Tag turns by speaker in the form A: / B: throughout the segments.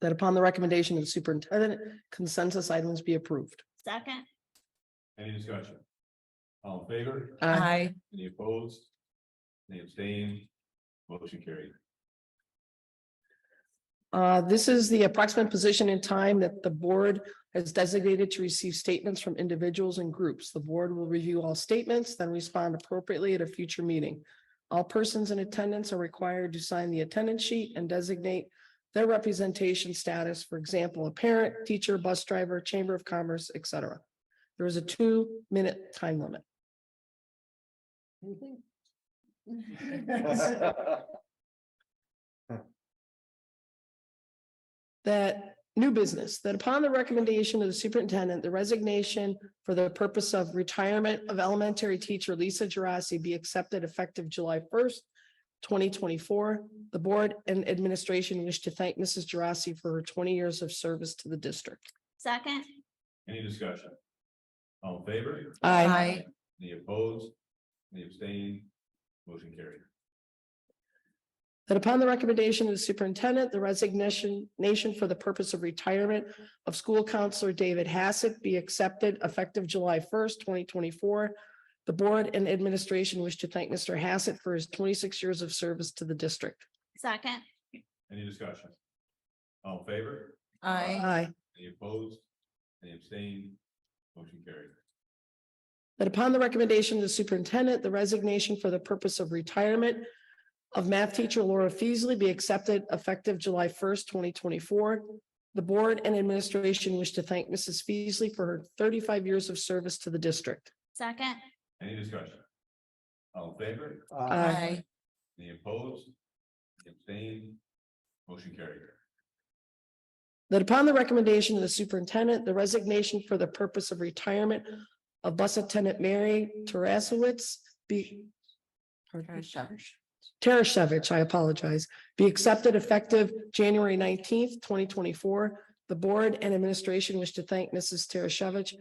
A: that upon the recommendation of the superintendent, consensus items be approved.
B: Second,
C: Any discussion? All in favor?
A: Uh,
D: Aye.
C: Any opposed? Any abstained? Motion carried.
A: uh, this is the approximate position in time that the board has designated to receive statements from individuals and groups. The board will review all statements, then respond appropriately at a future meeting. All persons in attendance are required to sign the attendance sheet and designate their representation status, for example, a parent, teacher, bus driver, chamber of commerce, et cetera. There is a two-minute time limit. That new business, that upon the recommendation of the superintendent, the resignation for the purpose of retirement of elementary teacher Lisa Gerasi be accepted effective July first, twenty twenty-four. The board and administration wish to thank Mrs. Gerasi for her twenty years of service to the district.
B: second,
C: Any discussion? All in favor?
A: Aye.
C: Any opposed? Any abstained? Motion carried.
A: That upon the recommendation of the superintendent, the resignation nation for the purpose of retirement of school counselor David Hassett be accepted effective July first, twenty twenty-four. The board and administration wish to thank Mr. Hassett for his twenty-six years of service to the district.
B: second,
C: Any discussion? All in favor?
D: Aye.
A: Aye.
C: Any opposed? Any abstained? Motion carried.
A: That upon the recommendation of the superintendent, the resignation for the purpose of retirement of math teacher Laura Feasley be accepted effective July first, twenty twenty-four. The board and administration wish to thank Mrs. Feasley for her thirty-five years of service to the district.
B: second,
C: Any discussion? All in favor?
D: Aye.
C: Any opposed? Any Abstained? Motion carried.
A: That upon the recommendation of the superintendent, the resignation for the purpose of retirement of bus attendant Mary Tarasowitz be pardon? Tarasevich, I apologize, be accepted effective January nineteenth, twenty twenty-four. The board and administration wish to thank Mrs. Tarasevich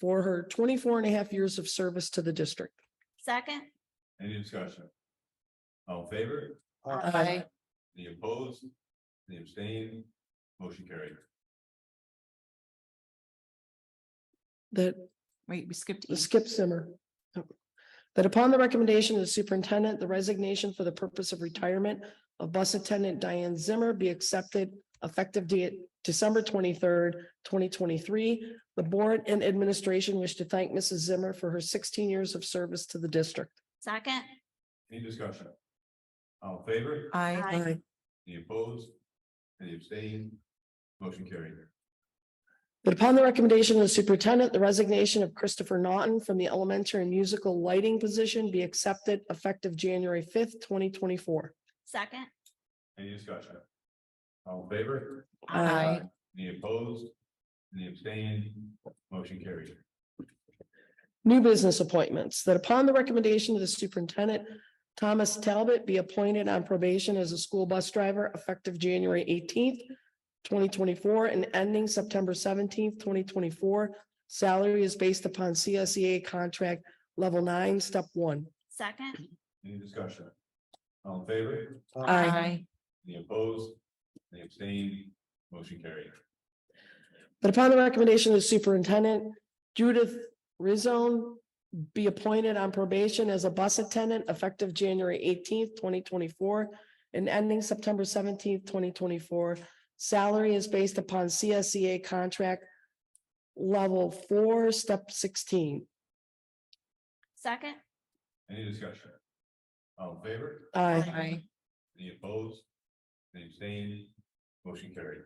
A: for her 24 and a half years of service to the district.
B: second,
C: Any discussion? All in favor?
A: uh,
D: Aye.
C: Any opposed? Any abstained? Motion carried.
A: That
D: Wait, we skipped. E.
A: Skip Zimmer. That upon the recommendation of the superintendent, the resignation for the purpose of retirement of bus attendant Diane Zimmer be accepted effective de- December twenty-third, twenty twenty-three. The board and administration wish to thank Mrs. Zimmer for her sixteen years of service to the district.
B: second,
C: Any discussion? All in favor?
D: Aye.
B: Aye.
C: Any opposed? Any abstained? Motion carried.
A: That upon the recommendation of the superintendent, the resignation of Christopher Naughton from the elementary musical lighting position be accepted effective January fifth, twenty twenty-four.
B: second,
C: Any discussion? All in favor?
D: Aye.
C: Any opposed? Any abstained? Motion carried.
A: New business appointments, that upon the recommendation of the superintendent, Thomas Talbot be appointed on probation as a school bus driver effective January eighteenth, twenty twenty-four and ending September seventeenth, twenty twenty-four. Salary is based upon CSEA contract level nine, step one.
B: second,
C: Any discussion? All in favor?
D: Aye.
C: Any opposed? Any abstained? Motion carried.
A: That upon the recommendation of the superintendent, Judith Rizone be appointed on probation as a bus attendant effective January eighteenth, twenty twenty-four and ending September seventeenth, twenty twenty-four. Salary is based upon CSEA contract level four, step sixteen.
B: second,
C: Any discussion? All in favor?
A: Aye.
D: Aye.
C: Any opposed? Any abstained? Motion carried.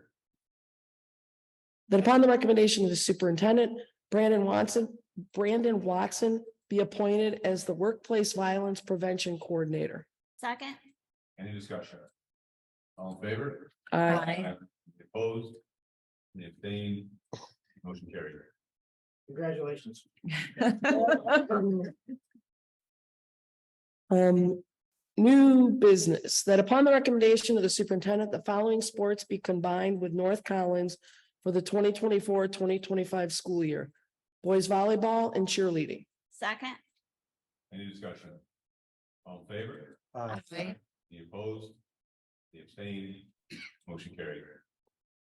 A: That upon the recommendation of the superintendent, Brandon Watson, Brandon Watson be appointed as the workplace violence prevention coordinator.
B: second,
C: Any discussion? All in favor?
A: Aye.
D: Aye.
C: Any Opposed? Any abstained? Motion carried.
E: Congratulations.
A: Um, new business, that upon the recommendation of the superintendent, the following sports be combined with North Collins for the 2024-2025 school year. Boys volleyball and cheerleading.
B: second,
C: Any discussion? All in favor?
E: Aye.
D: Aye.
C: Any opposed? Any abstained? Motion carried.